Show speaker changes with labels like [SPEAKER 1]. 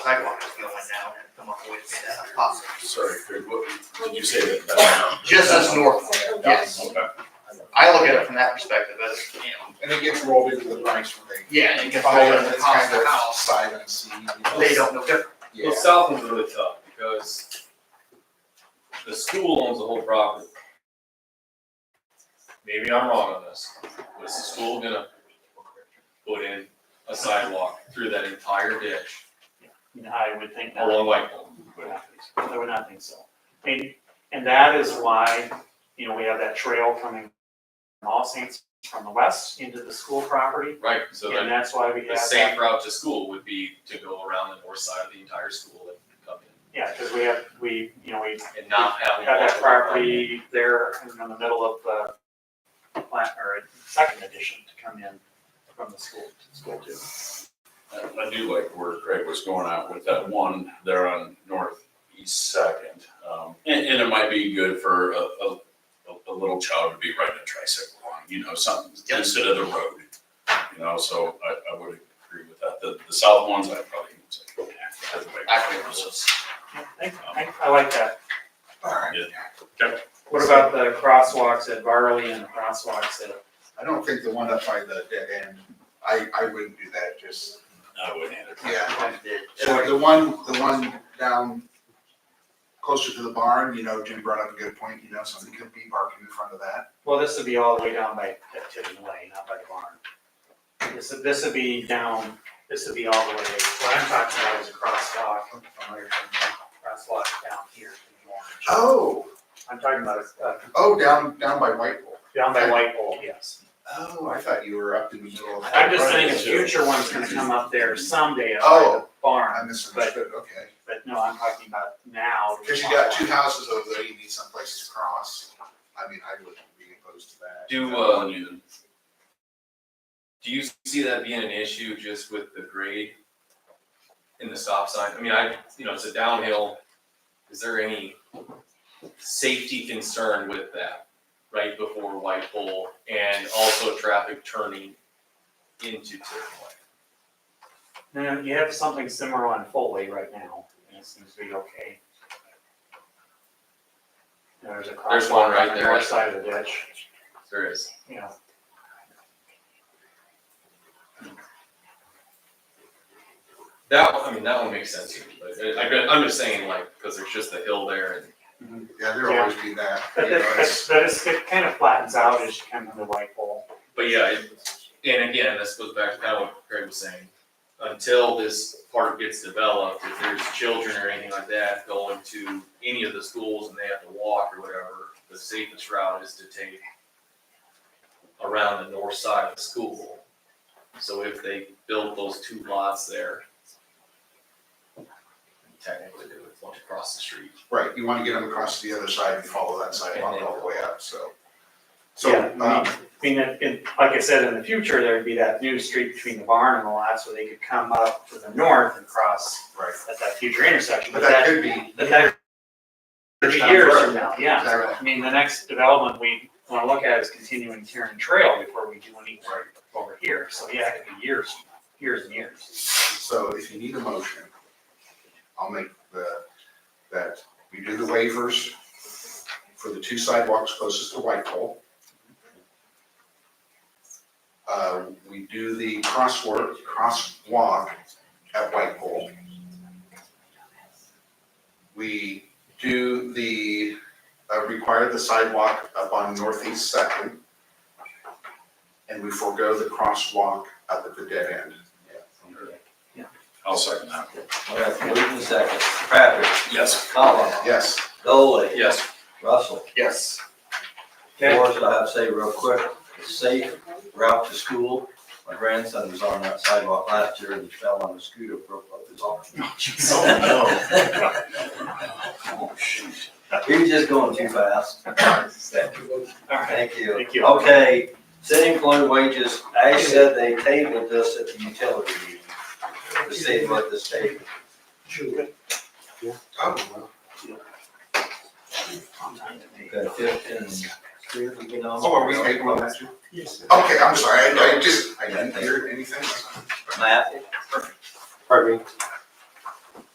[SPEAKER 1] sidewalk is going now and come up with as possible.
[SPEAKER 2] Sorry, Craig, what, did you say that? that-
[SPEAKER 1] Just as north, yes.
[SPEAKER 2] Okay.
[SPEAKER 1] I look at it from that perspective as, you know,
[SPEAKER 3] And it gets rolled into the price when they.
[SPEAKER 1] yeah, and it gets rolled into the cost of the house,
[SPEAKER 3] Side unseen.
[SPEAKER 1] they don't know different.
[SPEAKER 3] Yeah.
[SPEAKER 4] Well, south one's really tough because the school owns the whole property. Maybe I'm wrong on this. Was the school gonna put in a sidewalk through that entire ditch
[SPEAKER 5] You know, I would think not,
[SPEAKER 4] along Whitehall?
[SPEAKER 5] would not think so, I would not think so. And, and that is why, you know, we have that trail coming from All Saints from the west into the school property.
[SPEAKER 4] Right, so
[SPEAKER 5] And
[SPEAKER 4] then
[SPEAKER 5] that's why we
[SPEAKER 4] the
[SPEAKER 5] have
[SPEAKER 4] safe
[SPEAKER 5] that,
[SPEAKER 4] route to school would be to go around the north side of the entire school and come in
[SPEAKER 5] yeah, because we have, we, you know, we
[SPEAKER 4] and not have.
[SPEAKER 5] got that property there in the middle of the plant, or second edition to come in from the school, school too.
[SPEAKER 2] I I do like where Craig was going at with that one there on northeast second. Um, and, and it might be good for a, a, a- a little child to be riding a tricycle on, you know, something
[SPEAKER 1] Yep.
[SPEAKER 2] instead of the road. You know, so I, I would agree with that. The, the south ones, I probably. would say, yeah, that's the way
[SPEAKER 1] I think it
[SPEAKER 2] goes. Um,
[SPEAKER 5] Yeah, I, I, I like that.
[SPEAKER 3] Alright,
[SPEAKER 5] What about the crosswalks at Barley and the crosswalks at,
[SPEAKER 3] I don't think the one up by the dead end, I, I wouldn't do that, just,
[SPEAKER 2] I wouldn't either.
[SPEAKER 3] yeah. So
[SPEAKER 1] Sure.
[SPEAKER 3] the one, the one down closer to the barn, you know, Jim brought up a good point, you know, somebody could be parking in front of that.
[SPEAKER 5] well, this would be all the way down by, at Tiffin Way, not by the barn. This, would- this would be down, this would be all the way, what I'm talking about is a crosswalk, crosswalk down here in the orange.
[SPEAKER 3] Oh,
[SPEAKER 5] I'm talking about, uh,
[SPEAKER 3] oh, down, down by White Bull.
[SPEAKER 5] down by White Pole, yes.
[SPEAKER 3] Oh, I thought you were up in the middle of.
[SPEAKER 5] I'm just saying a
[SPEAKER 2] Right.
[SPEAKER 5] future one's gonna come up there someday at the
[SPEAKER 3] Oh. I
[SPEAKER 5] barn,
[SPEAKER 3] misunderstood, okay.
[SPEAKER 5] but no, I'm talking about now.
[SPEAKER 3] Because you got two houses over there, you need some place to cross. I mean, I wouldn't be opposed to that.
[SPEAKER 4] Do,
[SPEAKER 2] I
[SPEAKER 4] uh,
[SPEAKER 2] wouldn't either.
[SPEAKER 4] Do you see that being an issue just with the grade in the stop sign? I mean, I, you know, it's a downhill. Is there any safety concern with that right before White Bull and also traffic turning into Tiverton?
[SPEAKER 5] No, you have something similar on Foley right now, and it seems to be okay. There's a
[SPEAKER 4] There's one
[SPEAKER 5] crosswalk
[SPEAKER 4] right
[SPEAKER 5] on the
[SPEAKER 4] there.
[SPEAKER 5] north side of the ditch,
[SPEAKER 4] There is.
[SPEAKER 5] you know,
[SPEAKER 4] That one, I mean, that one makes sense to me, but I, I- I'm just saying like, because there's just the hill there and
[SPEAKER 3] Yeah, there'll always be that.
[SPEAKER 5] but
[SPEAKER 3] you know,
[SPEAKER 5] that,
[SPEAKER 3] it's-
[SPEAKER 5] but but it's, it kind of flattens out as you come into White Pole.
[SPEAKER 4] But yeah, it- and again, this goes back to kind of what Craig was saying. Until this park gets developed, if there's children or anything like that going to any of the schools and they have to walk or whatever, the safest route is to take around the north side of the school. So if they built those two lots there, technically they would want to cross the street.
[SPEAKER 3] Right, you want to get them across to the other side and follow that sidewalk all the way up, so. So,
[SPEAKER 5] Yeah, I
[SPEAKER 3] um,
[SPEAKER 5] mean- I mean, it- it- like I said, in the future, there'd be that new street between the barn and the lots where they could come up to the north and cross
[SPEAKER 3] right,
[SPEAKER 5] at that future intersection,
[SPEAKER 3] but that could be.
[SPEAKER 5] But that, thirty
[SPEAKER 3] Down
[SPEAKER 5] years
[SPEAKER 3] further.
[SPEAKER 5] from now, yeah.
[SPEAKER 3] Exactly.
[SPEAKER 5] I mean, the next development we wanna look at is continuing Tiern Trail before we do anything over here, so yeah, it could be years, years and years.
[SPEAKER 3] So if you need a motion, I'll make the, that we do the waivers for the two sidewalks closest to Whitehall. Uh, we do the crosswalk, crosswalk at Whitehall. We do the, uh, require the sidewalk up on Northeast Second. And we forego the crosswalk up at the dead end.
[SPEAKER 2] I'll second that.
[SPEAKER 6] We have Wheaton second, Patrick, Oh.
[SPEAKER 2] Yes.
[SPEAKER 6] Colin,
[SPEAKER 3] Yes.
[SPEAKER 6] Dolly,
[SPEAKER 4] Yes,
[SPEAKER 6] Russell.
[SPEAKER 1] Yes.
[SPEAKER 5] Okay.
[SPEAKER 6] Forrest, I have to say real quick, the safe route to school. My grandson was on that sidewalk last year and he fell on a scooter, broke both his arms. He was just going too fast.
[SPEAKER 5] Alright,
[SPEAKER 6] Thank you.
[SPEAKER 5] thank you.
[SPEAKER 6] Okay, city employee wages, Ash said they tabled this at the utility meeting to see what the state.
[SPEAKER 3] Oh,
[SPEAKER 6] Got fifteen.
[SPEAKER 3] oh, are we making one
[SPEAKER 6] Matt,
[SPEAKER 3] that too? Yes. Okay, I'm sorry, I, I just, I didn't hear anything.
[SPEAKER 6] Matt,
[SPEAKER 7] Pardon me?